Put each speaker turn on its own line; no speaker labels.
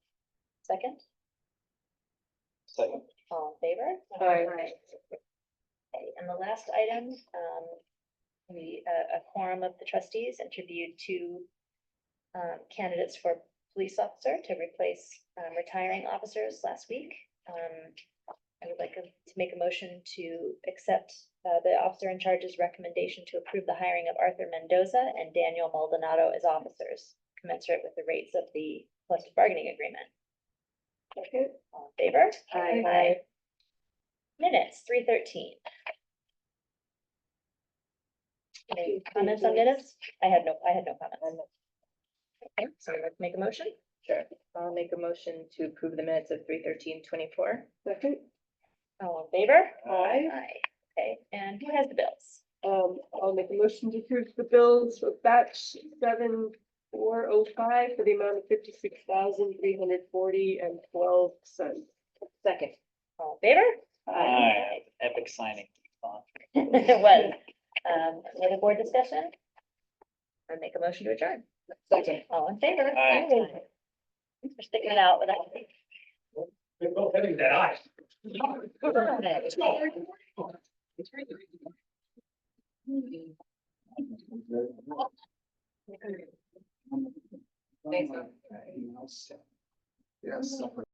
Second,
Second.
all in favor?
Aye.
Okay, and the last item, um, we, uh, a quorum of the trustees interviewed two um, candidates for police officer to replace, um, retiring officers last week. Um, I would like to make a motion to accept, uh, the officer in charge's recommendation to approve the hiring of Arthur Mendoza and Daniel Maldonado as officers commensurate with the rates of the collective bargaining agreement. All in favor?
Aye.
Minutes, three thirteen. Any comments on minutes? I had no, I had no comments. Okay, so let's make a motion.
Sure. I'll make a motion to approve the minutes of three thirteen twenty-four.
Second,
All in favor?
aye.
Aye. Okay, and who has the bills?
Um, I'll make a motion to approve the bills for batch seven four oh five for the amount of fifty-six thousand three hundred forty and twelve cents.
Second.
All in favor?
Aye, epic signing.
It was, um, any board discussion? I make a motion to adjourn.
Second.
All in favor?
Aye.
Thanks for sticking it out without.
They're both having that eye. Let's go.
Thanks, man.
Yes.